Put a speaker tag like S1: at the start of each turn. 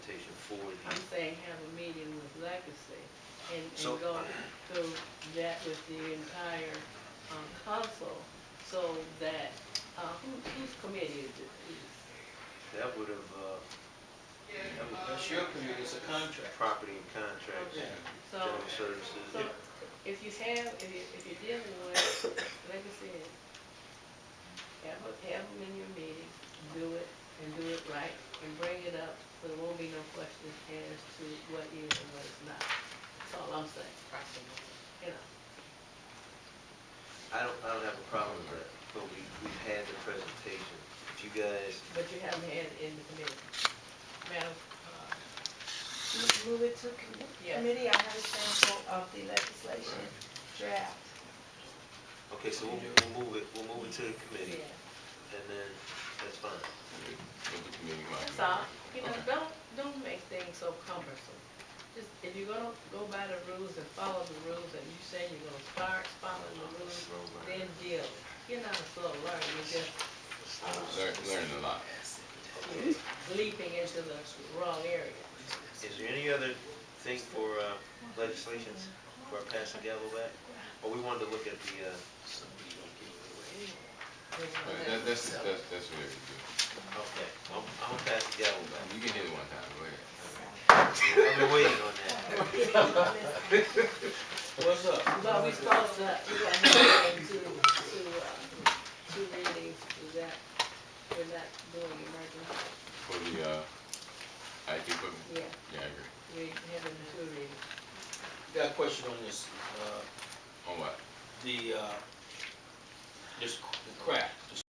S1: before
S2: I'm
S1: the,
S2: saying have a meeting with Legacy and,
S1: So-
S2: and go through that with the entire, um, council, so that, uh, who, whose committee is it? Is-
S1: that would have, uh, that was
S3: That's your committee, it's a contract.
S1: property and contracts,
S2: Okay. So,
S1: general services.
S2: so if you have, if you, if you're dealing with Legacy, have, a- have them in your meeting, do it, and do it right, and bring it up, so there won't be no questions as to what is and what is not. That's all I'm saying, you know.
S1: I don't, I don't have a problem with that, but we, we've had the presentation. If you guys,
S2: But you haven't had it in the committee. Madam, uh,
S4: Move- Move it to com-
S2: Yes.
S4: committee, I have a sample of the legislation draft.
S1: okay, so we'll, we'll move it, we'll move it to the committee,
S2: yeah,
S1: and then, that's fine.
S2: that's all. You know, don't, don't make things so cumbersome. Just, if you're gonna go by the rules and follow the rules, and you say you're gonna start following the rules, then deal. You're not a slow learner, you're just
S5: Learn, learn a lot.
S2: leaping into the wrong area.
S1: Is there any other thing for uh, legislations, for our passing gavel back? Or we wanted to look at the, uh,
S5: But that, that's, that's, that's what it is.
S1: okay, I'm, I'm gonna pass the gavel back.
S5: You can hit it one time, go ahead.
S1: I've been waiting on that.
S3: What's up?
S2: But we supposed to, we got to, to, to, uh, two readings, is that, we're not doing emergency,
S5: For the, uh, IT equipment,
S2: yeah,
S5: yeah, I agree.
S2: we having two readings.
S3: Got a question on this, uh,
S5: On what?
S3: the, uh, this, the crack, the